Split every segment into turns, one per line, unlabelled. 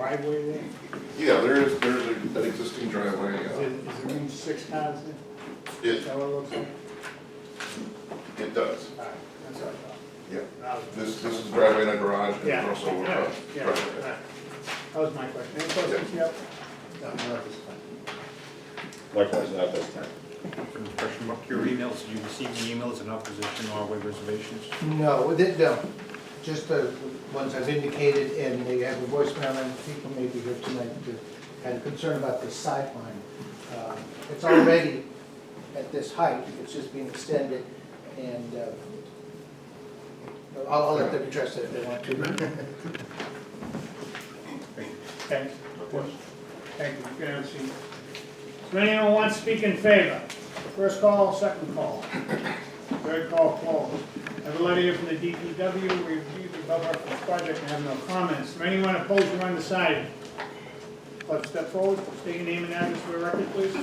driveway there?
Yeah, there is, there's a- an existing driveway,
Is
uh,
it, is it room six cars in? Is
it,
that what it looks like?
it does.
All right, that's what I
Yeah.
thought. That was-
This, this is driveway and a garage, and
Yeah,
there's also a
yeah,
uh,
yeah,
driveway.
right. That was my question. Any questions? Yep. No, not at this time.
Likewise, not this time.
Question mark, your emails, did you receive the emails in opposition or with reservations?
No, with it, no, just the ones I've indicated, and they have a voicemail, and people may be here tonight to, had a concern about the sideline. Uh, It's already at this height, it's just being extended, and uh, I'll, I'll let them address it if they want to.
Thanks. Thank you, good to see you. Does anyone want to speak in favor? First call, second call. Third call closed. I have a letter here from the DPW, we reviewed the above referenced project and have no comments. Is there anyone opposed or undecided? Let's step forward, state your name and address for the record, please.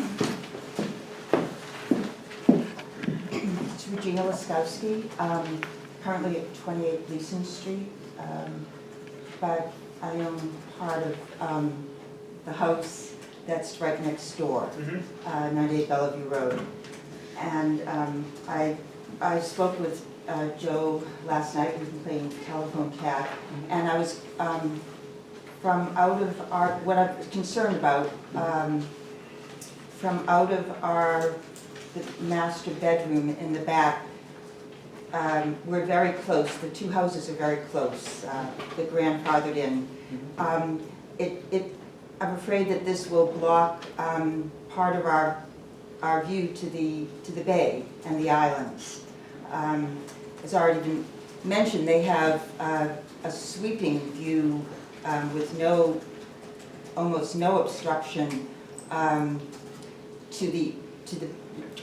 It's Regina Laskowski, um, currently at 28 Gleason Street. um, But I own part of um, the house that's right next door,
Mhm.
uh, 98 Bellevue Road. And um, I, I spoke with uh, Joe last night, we've been playing telephone cat. And I was, um, from out of our, what I'm concerned about, um, from out of our the master bedroom in the back. Um, We're very close, the two houses are very close, uh, they're grandfathered in. Um, It, it, I'm afraid that this will block um, part of our, our view to the, to the bay and the islands. Um, As already been mentioned, they have uh, a sweeping view um, with no, almost no obstruction um, to the, to the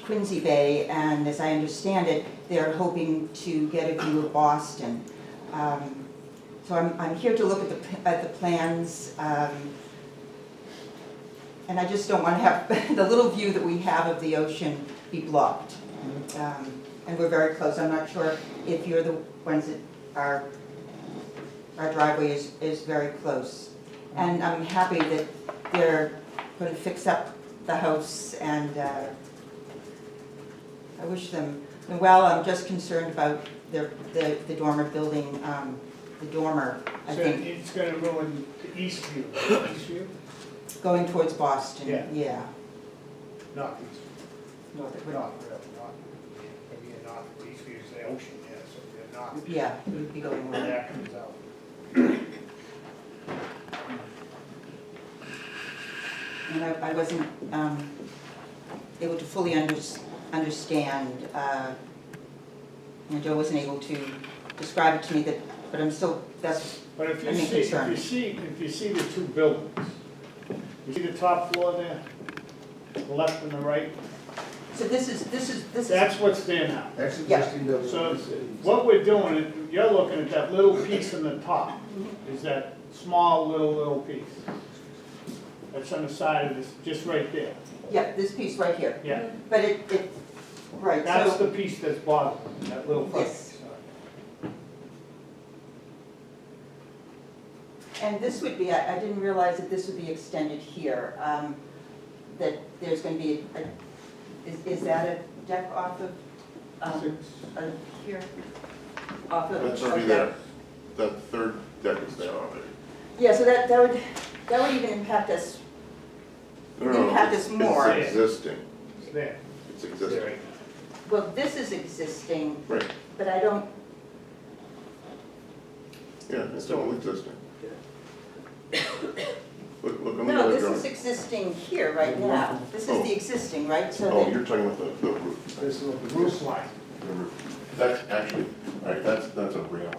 Quincy Bay, and as I understand it, they're hoping to get a view of Boston. Um, So I'm, I'm here to look at the, p- at the plans, um, and I just don't want to have, the little view that we have of the ocean be blocked. Um, And we're very close, I'm not sure if you're the ones that are, our driveway is, is very close. And I'm happy that they're going to fix up the house and uh, I wish them, well, I'm just concerned about their, the the dormer building, um, the dormer, I
So
think,
it's gonna ruin the east view, east view,
going towards Boston,
Yeah.
yeah.
not east.
North
Not,
of-
really, not, maybe not, east view is the ocean, yeah, so they're not.
Yeah, it would be going
when
where,
that comes out.
and I, I wasn't, um, able to fully under, understand, uh, and Joe wasn't able to describe it to me that, but I'm still, that's,
But if you
I mean,
see, if you
concern.
see, if you see the two buildings, you see the top floor there, the left and the right,
so this is, this is, this is.
that's what's there now.
That's
Yeah.
existing building.
So what we're doing, is you're looking at that little piece in the top, is that small little, little piece. That's on the side of this, just right there,
Yeah, this piece right here,
yeah.
but it, it, right,
That's
so,
the piece that's bothering, me, that little front
Yes.
piece. uh,
and this would be, I, I didn't realize that this would be extended here, um, that there's gonna be a, is, is that a deck off of, um,
Six.
uh, here? Off of.
That's already
of
there,
that-
that third deck is there already.
Yeah, so that, that would, that would even impact us,
No, no,
You have
it's-
this more.
It's existing,
It's there.
it's existing,
well, this is existing,
right,
but I don't,
yeah, it's all existing. Look, look on the
no,
other
this is
drawing.
existing here right now, this is the existing, right, so
Oh,
that.
you're talking about the, the roof.
This will be-
Roof line.
The roof. That's actually, all right, that's, that's a railing.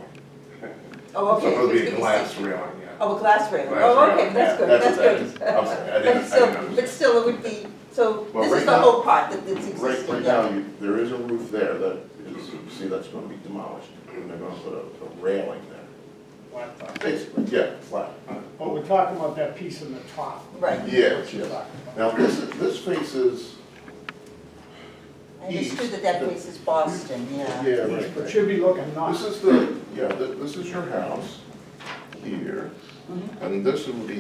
Oh,
It's
okay.
supposed to
it's
be a
gonna
glass railing, yeah.
Oh, a glass railing,
Glass
oh,
railing,
okay, that's
yeah,
good, that's
what
good.
that is. I'm sorry, I
But
didn't, I didn't
still,
understand.
but still, it would be, so
Well,
this
right
is the
now-
whole part that that's
Right, right
existing,
now,
yeah.
you, there is a roof there that is, see, that's gonna be demolished, and they're gonna put a, a railing there.
Flat top.
Basically, yeah, flat.
But we're talking about that piece in the top.
Right,
Yes, yes. Now, this, this faces,
I understood that that place is Boston, yeah.
yeah, right.
It should be looking
This
north.
is the, yeah, thi- this is your house here,
Mhm.
and this would be